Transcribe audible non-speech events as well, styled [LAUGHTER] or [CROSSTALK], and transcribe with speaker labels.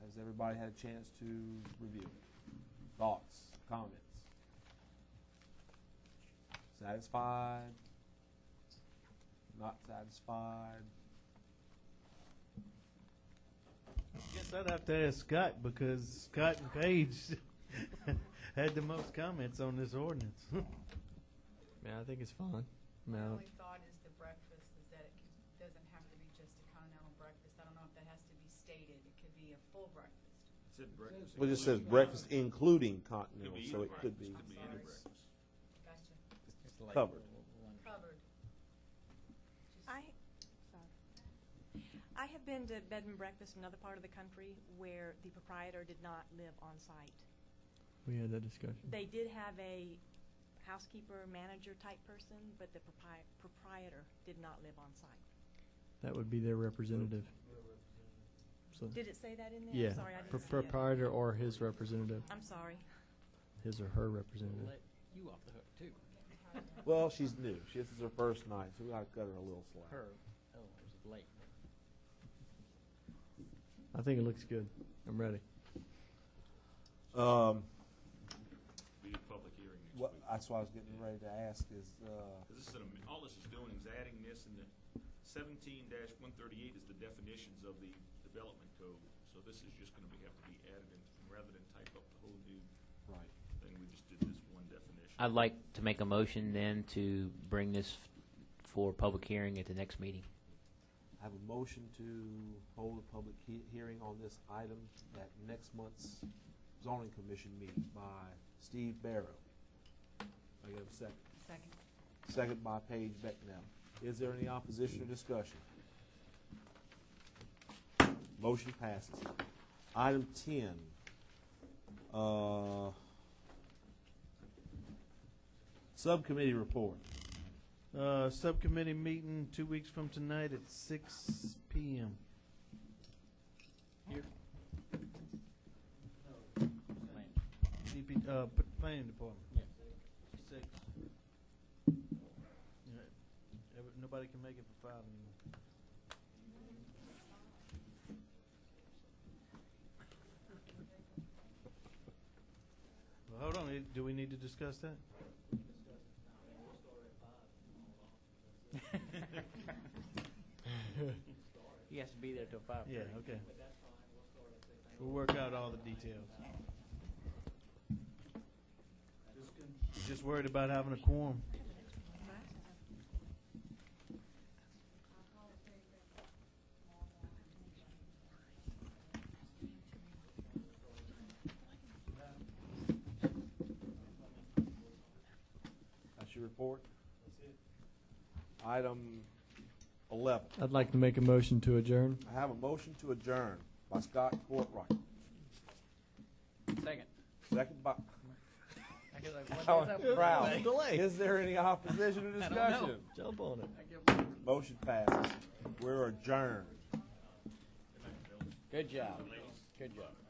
Speaker 1: Has everybody had a chance to review it? Thoughts, comments? Satisfied? Not satisfied?
Speaker 2: Guess I'd have to ask Scott because Scott and Paige [LAUGHS] had the most comments on this ordinance. [LAUGHS]
Speaker 3: Yeah, I think it's fine. I mean,
Speaker 4: My
Speaker 3: I don't-
Speaker 4: only thought is the breakfast, is that it c- doesn't have to be just a continental breakfast. I don't know if that has to be stated. It could be a full breakfast.
Speaker 1: Well, it just says breakfast including continental,
Speaker 5: Could be
Speaker 1: so
Speaker 5: either
Speaker 1: it could be
Speaker 4: I'm sorry. Gotcha.
Speaker 1: covered.
Speaker 4: Covered. Just-
Speaker 6: I, sorry. I have been to bed and breakfast in another part of the country where the proprietor did not live on site.
Speaker 3: we had that discussion.
Speaker 6: They did have a housekeeper, manager type person, but the propri- proprietor did not live on site.
Speaker 3: That would be their representative. So,
Speaker 6: Did it say that in there?
Speaker 3: yeah,
Speaker 6: I'm sorry, I
Speaker 3: pro-
Speaker 6: didn't see it.
Speaker 3: proprietor or his representative,
Speaker 6: I'm sorry.
Speaker 3: his or her representative.
Speaker 7: you off the hook too.
Speaker 1: Well, she's new. She- This is her first night, so we gotta cut her a little slack.
Speaker 7: Her, oh, it was late.
Speaker 3: I think it looks good. I'm ready.
Speaker 1: Um,
Speaker 5: We need a public hearing next
Speaker 1: what,
Speaker 5: week.
Speaker 1: that's what I was getting ready to ask is, uh,
Speaker 5: 'Cause this is an am- all this is doing is adding this and the seventeen one thirty-eight is the definitions of the development code. So this is just gonna be, have to be added in, rather than type up the whole new
Speaker 1: right.
Speaker 5: thing, we just did this one definition.
Speaker 8: I'd like to make a motion then to bring this f- for public hearing at the next meeting.
Speaker 1: I have a motion to hold a public he- hearing on this item at next month's zoning commission meeting by Steve Barrow. I get a second.
Speaker 4: Second.
Speaker 1: Second by Paige Becknell. Is there any opposition or discussion? Motion passes. Item ten. Uh, Subcommittee report.
Speaker 2: Uh, subcommittee meeting two weeks from tonight at six PM. DP, uh, p- planning department.
Speaker 7: Yeah.
Speaker 2: Six. Yeah, every- Nobody can make it for five anymore. Well, hold on, eh, do we need to discuss that?
Speaker 7: He has to be there till five
Speaker 2: Yeah,
Speaker 7: thirty.
Speaker 2: okay. We'll work out all the details. Just worried about having a quorum.
Speaker 1: That's your report? That's it. Item eleven.
Speaker 3: I'd like to make a motion to adjourn.
Speaker 1: I have a motion to adjourn by Scott Courtright,
Speaker 7: Second.
Speaker 1: second by
Speaker 7: I guess
Speaker 1: [LAUGHS]
Speaker 7: I, what
Speaker 1: Alan
Speaker 7: is that?
Speaker 1: Brown.
Speaker 3: Delay.
Speaker 1: Is there any opposition or
Speaker 7: don't know.
Speaker 1: discussion?
Speaker 3: Jump on it.
Speaker 1: Motion passes. We're adjourned.
Speaker 7: Good job. Good job.